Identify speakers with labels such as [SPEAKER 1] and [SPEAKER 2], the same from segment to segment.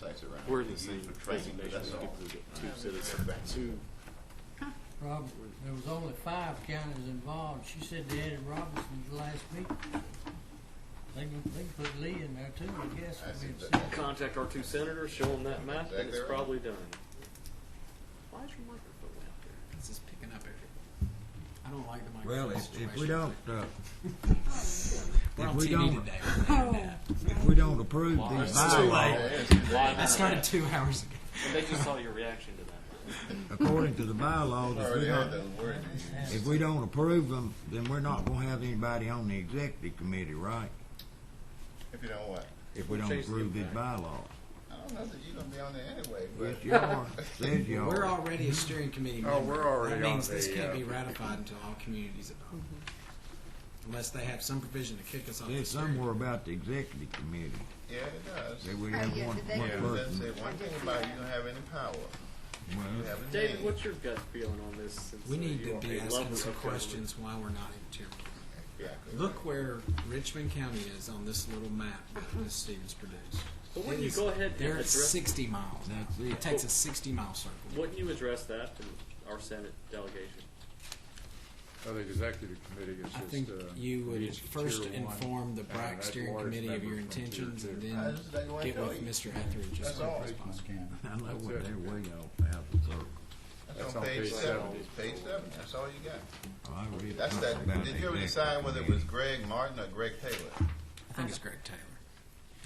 [SPEAKER 1] guys around.
[SPEAKER 2] We're in the
[SPEAKER 1] Use
[SPEAKER 2] same
[SPEAKER 1] for training,
[SPEAKER 2] designation.
[SPEAKER 1] but
[SPEAKER 2] We
[SPEAKER 1] that's all.
[SPEAKER 2] get- we get two citizens, two.
[SPEAKER 3] Rob, there was only five counties involved. She said they added Robinson to the last meeting. They can, they can put Lee in there too, I guess.
[SPEAKER 1] I
[SPEAKER 3] I mean,
[SPEAKER 1] see
[SPEAKER 3] it's-
[SPEAKER 1] that.
[SPEAKER 2] Contact our two senators, show them that map, and
[SPEAKER 1] Exactly
[SPEAKER 2] it's
[SPEAKER 1] right.
[SPEAKER 2] probably done. Why is your microphone out there?
[SPEAKER 4] It's just picking up everything. I don't like the microphone
[SPEAKER 5] Well, if,
[SPEAKER 4] situation.
[SPEAKER 5] if we don't, uh,
[SPEAKER 4] We're
[SPEAKER 5] if
[SPEAKER 4] on
[SPEAKER 5] we
[SPEAKER 4] TV
[SPEAKER 5] don't-
[SPEAKER 4] today. We're having that.
[SPEAKER 5] if we don't approve these
[SPEAKER 2] It's too
[SPEAKER 5] bylaws,
[SPEAKER 2] late.
[SPEAKER 4] That started two hours ago.
[SPEAKER 2] And they just saw your reaction to that.
[SPEAKER 5] according to the bylaws, if we
[SPEAKER 1] Already had
[SPEAKER 5] don't,
[SPEAKER 1] those words.
[SPEAKER 5] if we don't approve them, then we're not gonna have anybody on the executive committee, right?
[SPEAKER 1] If you don't what?
[SPEAKER 5] If we don't
[SPEAKER 2] Change the
[SPEAKER 5] approve these
[SPEAKER 2] impact.
[SPEAKER 5] bylaws.
[SPEAKER 1] I don't know that you're gonna be on there anyway,
[SPEAKER 5] Yes,
[SPEAKER 1] but
[SPEAKER 5] you are, says you
[SPEAKER 4] We're
[SPEAKER 5] are.
[SPEAKER 4] already a steering committee member.
[SPEAKER 6] Oh, we're already
[SPEAKER 4] That means
[SPEAKER 6] on
[SPEAKER 4] this
[SPEAKER 6] the,
[SPEAKER 4] can't
[SPEAKER 6] uh,
[SPEAKER 4] be ratified until all communities adopt.
[SPEAKER 2] Mm-hmm.
[SPEAKER 4] Unless they have some provision to kick us off the
[SPEAKER 5] Says
[SPEAKER 4] steering.
[SPEAKER 5] somewhere about the executive committee,
[SPEAKER 1] yeah, it does.
[SPEAKER 5] that we have
[SPEAKER 7] yeah,
[SPEAKER 5] one,
[SPEAKER 7] did they-
[SPEAKER 5] one
[SPEAKER 1] Yeah, it doesn't say
[SPEAKER 5] person.
[SPEAKER 1] one thing about you don't have any power. You
[SPEAKER 5] Well,
[SPEAKER 1] have a
[SPEAKER 2] David,
[SPEAKER 1] name.
[SPEAKER 2] what's your gut feeling on this? since,
[SPEAKER 4] We
[SPEAKER 2] uh,
[SPEAKER 4] need
[SPEAKER 2] you
[SPEAKER 4] to
[SPEAKER 2] are
[SPEAKER 4] be
[SPEAKER 2] a lover
[SPEAKER 4] asking some
[SPEAKER 2] of government?
[SPEAKER 4] questions why we're not in tier one.
[SPEAKER 1] Exactly.
[SPEAKER 4] Look where Richmond County is on this little map that Ms. Stevens produced.
[SPEAKER 2] But wouldn't
[SPEAKER 4] It
[SPEAKER 2] Uh-huh. you
[SPEAKER 4] is-
[SPEAKER 2] go ahead and
[SPEAKER 4] They're at
[SPEAKER 2] address,
[SPEAKER 4] sixty miles now.
[SPEAKER 5] That's it.
[SPEAKER 4] It takes a sixty mile circle.
[SPEAKER 2] wouldn't you address that to our Senate delegation?
[SPEAKER 6] Well, the executive committee
[SPEAKER 4] I
[SPEAKER 6] is
[SPEAKER 4] think
[SPEAKER 6] just, uh.
[SPEAKER 4] you would
[SPEAKER 6] needs to
[SPEAKER 4] first
[SPEAKER 6] tier one,
[SPEAKER 4] inform the
[SPEAKER 6] and
[SPEAKER 4] BRAC
[SPEAKER 6] that
[SPEAKER 4] steering
[SPEAKER 6] large
[SPEAKER 4] committee of
[SPEAKER 6] member
[SPEAKER 4] your
[SPEAKER 6] from tier
[SPEAKER 4] intentions
[SPEAKER 6] two.
[SPEAKER 4] and
[SPEAKER 1] I
[SPEAKER 4] then
[SPEAKER 1] just like what I
[SPEAKER 4] get
[SPEAKER 1] told
[SPEAKER 4] with
[SPEAKER 1] you.
[SPEAKER 4] Mr. Etheridge as
[SPEAKER 1] That's all.
[SPEAKER 4] quickly as possible.
[SPEAKER 5] I know
[SPEAKER 6] That's
[SPEAKER 5] what
[SPEAKER 6] it.
[SPEAKER 5] they're way off out of the circle.
[SPEAKER 1] That's on page seven, page seven, that's all you got.
[SPEAKER 5] I read
[SPEAKER 1] That's
[SPEAKER 5] something
[SPEAKER 1] that,
[SPEAKER 5] about
[SPEAKER 1] did
[SPEAKER 5] the
[SPEAKER 1] you ever
[SPEAKER 5] executive
[SPEAKER 1] decide whether it
[SPEAKER 5] committee.
[SPEAKER 1] was Greg Martin or Greg Taylor?
[SPEAKER 4] I think it's Greg Taylor.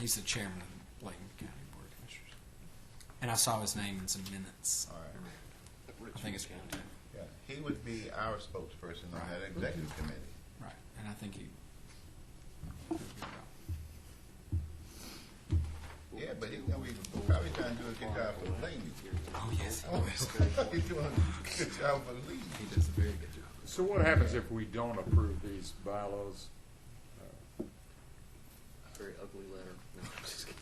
[SPEAKER 4] He's the chairman of the Blaine County Board of Commissioners. And I saw his name in some minutes.
[SPEAKER 1] All right.
[SPEAKER 4] I think it's Greg Taylor.
[SPEAKER 1] Yeah, he would be our spokesperson on that executive committee.
[SPEAKER 4] Right. And I think he.
[SPEAKER 1] Yeah, but he's gonna be, probably trying to do a good job for the ladies.
[SPEAKER 4] Oh, yes, he was.
[SPEAKER 1] He's doing a good job for the ladies.
[SPEAKER 4] He does a very good job.
[SPEAKER 6] So what happens if we don't approve these bylaws?
[SPEAKER 2] Very ugly letter. No, I'm just kidding.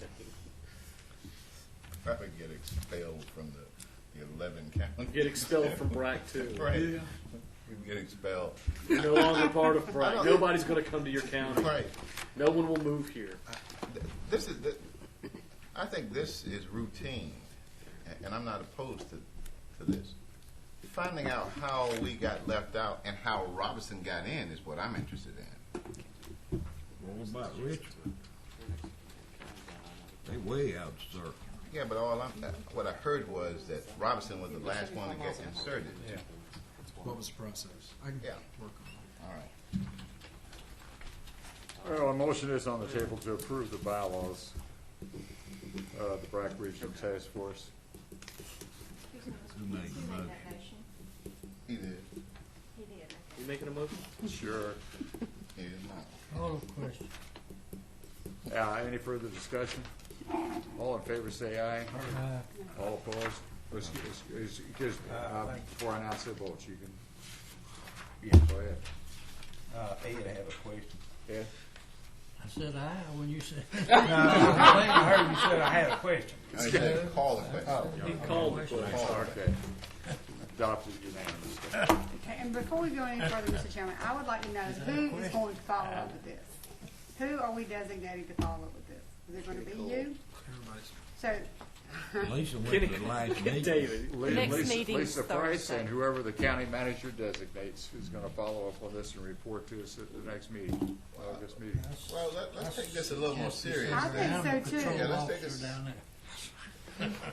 [SPEAKER 1] Probably get expelled from the, the eleven county.
[SPEAKER 2] Get expelled from BRAC too.
[SPEAKER 1] Right. We'd get expelled.
[SPEAKER 2] You're no longer part of
[SPEAKER 1] I
[SPEAKER 2] BRAC.
[SPEAKER 1] don't-
[SPEAKER 2] Nobody's going to come to your county.
[SPEAKER 1] Right.
[SPEAKER 2] No one will move here.
[SPEAKER 1] Th- This is, th- I think this is routine, a- and I'm not opposed to, to this. Finding out how we got left out and how Robinson got in is what I'm interested in.
[SPEAKER 5] What about Richmond? They way out of circle.
[SPEAKER 1] Yeah, but all I'm, what I heard was that Robinson was the last one to get inserted.
[SPEAKER 4] What was the process? I can
[SPEAKER 1] Yeah.
[SPEAKER 4] work on
[SPEAKER 1] All right.
[SPEAKER 6] Well, a motion is on the table to approve the bylaws, uh, the BRAC Regional Task Force.
[SPEAKER 5] Who made the motion?
[SPEAKER 1] He did,
[SPEAKER 2] You making a motion?
[SPEAKER 6] Sure.
[SPEAKER 1] he did not.
[SPEAKER 3] All of question.
[SPEAKER 6] Uh, any further discussion? All in favor, say aye. All opposed? Let's, let's- let's- just, uh, before I announce the votes, you can. Go ahead.
[SPEAKER 8] Uh, Ed, I have a question.
[SPEAKER 6] Ed?
[SPEAKER 3] I said aye when you said.
[SPEAKER 8] I heard you said I had a question.
[SPEAKER 1] I said, call the question.
[SPEAKER 2] He called the question.
[SPEAKER 6] Oh, Okay. Adopted unanimously.
[SPEAKER 9] Okay, and before we go any further, Mr. Chairman, I would like to know who is going to follow up with this? Who are we designating to follow up with this? Is it gonna be you?
[SPEAKER 4] it. Everybody's
[SPEAKER 9] So,
[SPEAKER 5] Lisa went to the last meeting.
[SPEAKER 2] David.
[SPEAKER 6] Le-
[SPEAKER 7] Next
[SPEAKER 6] Lisa-
[SPEAKER 7] meeting's
[SPEAKER 6] Lisa Price
[SPEAKER 7] Thursday.
[SPEAKER 6] and whoever the county manager designates is going to follow up on this and report to us at the next meeting, August meeting.
[SPEAKER 1] Well, let, let's take this a little more serious.
[SPEAKER 9] I think so,
[SPEAKER 3] Animal
[SPEAKER 9] too.
[SPEAKER 1] Yeah,
[SPEAKER 3] control
[SPEAKER 1] let's take
[SPEAKER 3] officer
[SPEAKER 1] a-
[SPEAKER 3] down there.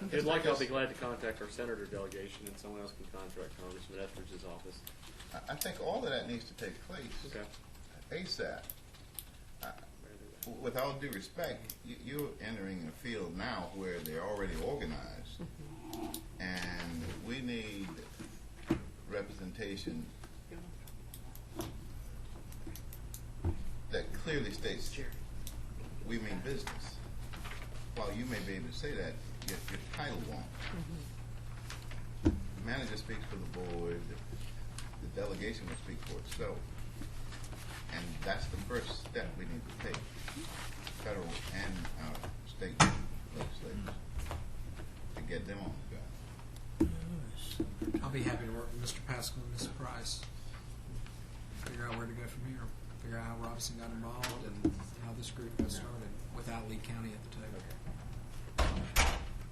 [SPEAKER 2] If you'd like, I'll be glad to contact our senator delegation, and someone else can contact Congressman Etheridge's office.
[SPEAKER 1] I, I think all of that needs to take place
[SPEAKER 2] Okay.
[SPEAKER 1] ASAP. With all due respect, you, you're entering a field now where they're already organized. And we need representation that clearly states, we mean business. While you may be able to say that, your, your title won't. The manager speaks for the board, the- the delegation will speak for itself. And that's the first step we need to take, federal and our state legislators, to get them on the ground.
[SPEAKER 4] I'll be happy to work with Mr. Pascal and Ms. Price. Figure out where to go from here. Figure out how Robinson got involved and how this group got started without Lee County at the table.